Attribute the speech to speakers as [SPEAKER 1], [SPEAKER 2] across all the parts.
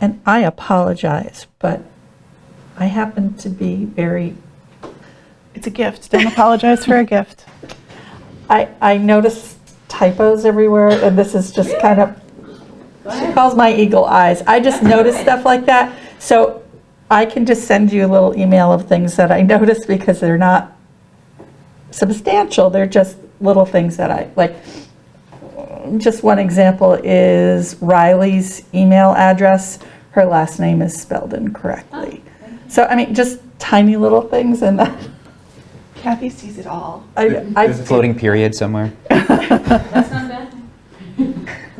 [SPEAKER 1] and I apologize, but I happen to be very,
[SPEAKER 2] It's a gift. Don't apologize for a gift.
[SPEAKER 1] I, I notice typos everywhere, and this is just kind of, she calls my eagle eyes. I just notice stuff like that. So I can just send you a little email of things that I notice because they're not substantial. They're just little things that I, like, just one example is Riley's email address. Her last name is spelled incorrectly. So, I mean, just tiny little things and I,
[SPEAKER 2] Kathy sees it all.
[SPEAKER 1] I,
[SPEAKER 3] Floating period somewhere.
[SPEAKER 4] That's not bad.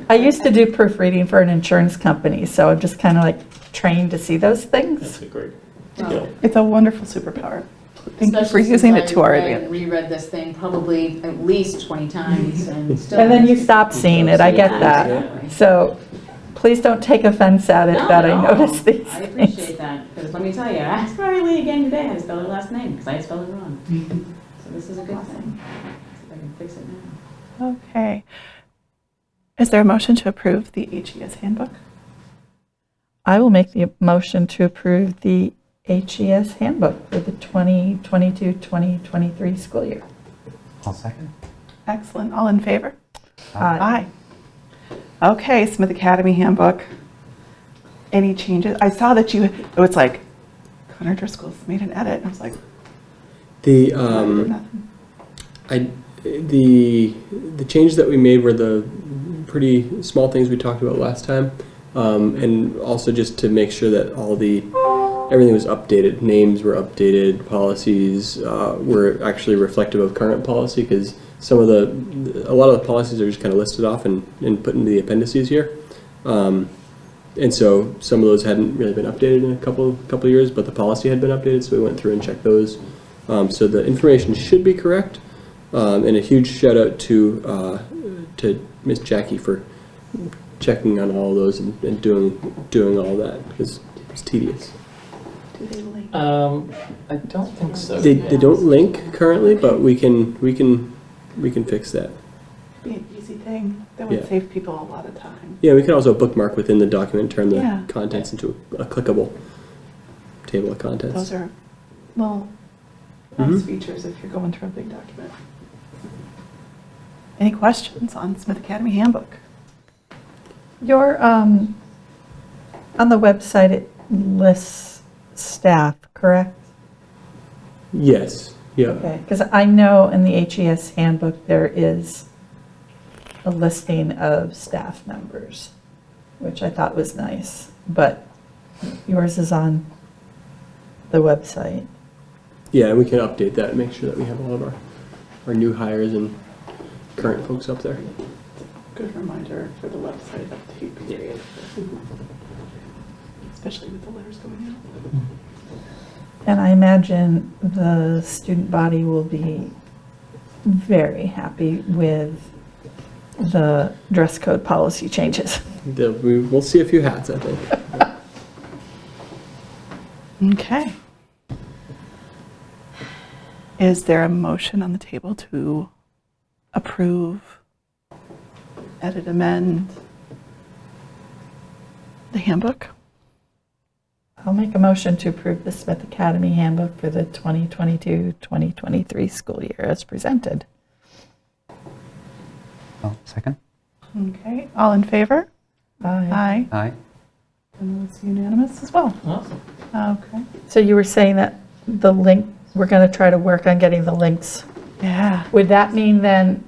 [SPEAKER 1] I used to do proofreading for an insurance company, so I'm just kind of like trained to see those things.
[SPEAKER 5] That's a great
[SPEAKER 4] Well,
[SPEAKER 5] skill.
[SPEAKER 2] It's a wonderful superpower. Thank you for
[SPEAKER 4] especially since
[SPEAKER 2] using it
[SPEAKER 4] I
[SPEAKER 2] to our
[SPEAKER 4] read
[SPEAKER 2] advantage.
[SPEAKER 4] and Reread this thing probably at least 20 times and still.
[SPEAKER 1] And then you stop seeing it, I get that. So please don't take offense at it
[SPEAKER 4] No,
[SPEAKER 1] that I
[SPEAKER 4] no,
[SPEAKER 1] noticed these
[SPEAKER 4] I
[SPEAKER 1] things.
[SPEAKER 4] appreciate that, because let me tell you, I asked Riley again today how to spell her last name, because I spelled it wrong.
[SPEAKER 2] Mm-hmm.
[SPEAKER 4] So this is a good thing. See if I can fix it now.
[SPEAKER 2] Okay. Is there a motion to approve the HES handbook?
[SPEAKER 1] I will make the motion to approve the HES handbook for the 2022, 2023 school year.
[SPEAKER 3] I'll second.
[SPEAKER 2] Excellent. All in favor?
[SPEAKER 1] Aye.
[SPEAKER 2] Aye. Okay, Smith Academy handbook. Any changes? I saw that you, it was like, Connor Driscoll's made an edit. I was like,
[SPEAKER 5] The, um,
[SPEAKER 2] nothing.
[SPEAKER 5] I, the, the changes that we made were the pretty small things we talked about last time. Um, and also just to make sure that all the, everything was updated, names were updated, policies, uh, were actually reflective of current policy, because some of the, a lot of the policies are just kind of listed off and, and put into the appendices here. Um, and so some of those hadn't really been updated in a couple, couple of years, but the policy had been updated, so we went through and checked those. Um, so the information should be correct. Um, and a huge shout out to, uh, to Miss Jackie for checking on all those and, and doing, doing all that, because it's tedious.
[SPEAKER 2] Do they link?
[SPEAKER 6] Um, I don't think so.
[SPEAKER 5] They, they don't link currently, but we can, we can, we can fix that.
[SPEAKER 2] Be an easy thing. That
[SPEAKER 5] Yeah.
[SPEAKER 2] would save people a lot of time.
[SPEAKER 5] Yeah, we can also bookmark within the document, turn
[SPEAKER 2] Yeah.
[SPEAKER 5] the contents into a clickable table
[SPEAKER 2] Those
[SPEAKER 5] of contents.
[SPEAKER 2] are little nice
[SPEAKER 5] Mhm.
[SPEAKER 2] features if you're going through a big document. Any questions on Smith Academy handbook?
[SPEAKER 1] Your, um, on the website, it lists staff, correct?
[SPEAKER 5] Yes, yeah.
[SPEAKER 1] Okay, because I know in the HES handbook, there is a listing of staff members, which I thought was nice, but yours is on the website.
[SPEAKER 5] Yeah, we can update that, and make sure that we have all of our, our new hires and current folks up there.
[SPEAKER 2] Good reminder for the website update period. Mm-hmm. Especially with the letters going out.
[SPEAKER 1] And I imagine the student body will be very happy with the dress code policy changes.
[SPEAKER 5] There'll be- We'll see a few hats, I think.
[SPEAKER 2] Okay. Is there a motion on the table to approve, edit, amend the handbook?
[SPEAKER 1] I'll make a motion to approve the Smith Academy handbook for the 2022-2023 school year as presented.
[SPEAKER 3] I'll second.
[SPEAKER 2] Okay, all in favor?
[SPEAKER 1] Aye.
[SPEAKER 2] Aye.
[SPEAKER 3] Aye.
[SPEAKER 2] And it's unanimous as well.
[SPEAKER 6] Awesome.
[SPEAKER 2] Okay.
[SPEAKER 1] So you were saying that the link, we're going to try to work on getting the links.
[SPEAKER 2] Yeah.
[SPEAKER 1] Would that mean then,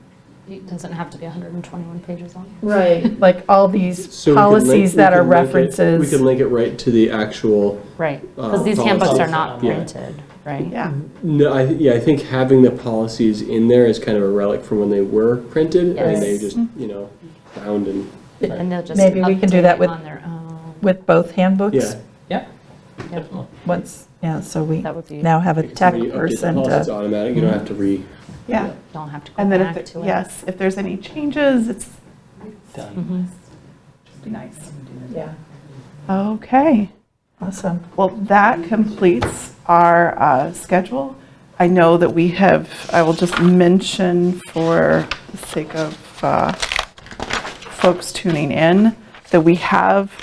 [SPEAKER 7] It doesn't have to be 121 pages long.
[SPEAKER 1] right, like all these
[SPEAKER 5] So we can link-
[SPEAKER 1] policies
[SPEAKER 5] we
[SPEAKER 1] that are
[SPEAKER 5] can link it- We
[SPEAKER 1] references?
[SPEAKER 5] can link it right to the actual,
[SPEAKER 7] Right,
[SPEAKER 5] Uh,
[SPEAKER 7] because these handbooks are not
[SPEAKER 5] Yeah.
[SPEAKER 7] printed, right?
[SPEAKER 2] Yeah.
[SPEAKER 5] no, I, yeah, I think having the policies in there is kind of a relic from when they were printed. And they
[SPEAKER 7] Yes.
[SPEAKER 5] just, you know, bound and,
[SPEAKER 7] And they'll just
[SPEAKER 1] Maybe we can do
[SPEAKER 7] update
[SPEAKER 1] that
[SPEAKER 7] it
[SPEAKER 1] with-
[SPEAKER 7] on their own.
[SPEAKER 1] With both handbooks?
[SPEAKER 5] yeah.
[SPEAKER 6] Yeah,
[SPEAKER 7] Yep.
[SPEAKER 6] definitely.
[SPEAKER 1] Once, yeah, so we
[SPEAKER 7] That would be-
[SPEAKER 1] now have a tech
[SPEAKER 5] When you update the
[SPEAKER 1] person
[SPEAKER 5] policy, It's
[SPEAKER 1] to,
[SPEAKER 5] automatic, you don't have to re,
[SPEAKER 2] Yeah.
[SPEAKER 7] Don't have to go
[SPEAKER 2] And then if,
[SPEAKER 7] back to
[SPEAKER 2] there-
[SPEAKER 7] it.
[SPEAKER 2] yes, if there's any changes, it's
[SPEAKER 6] Done.
[SPEAKER 7] Mhm.
[SPEAKER 2] just be nice.
[SPEAKER 1] yeah,
[SPEAKER 2] Okay.
[SPEAKER 1] awesome.
[SPEAKER 2] Well, that completes our uh, schedule. I know that we have, I will just mention for the sake of uh, folks tuning in, that we have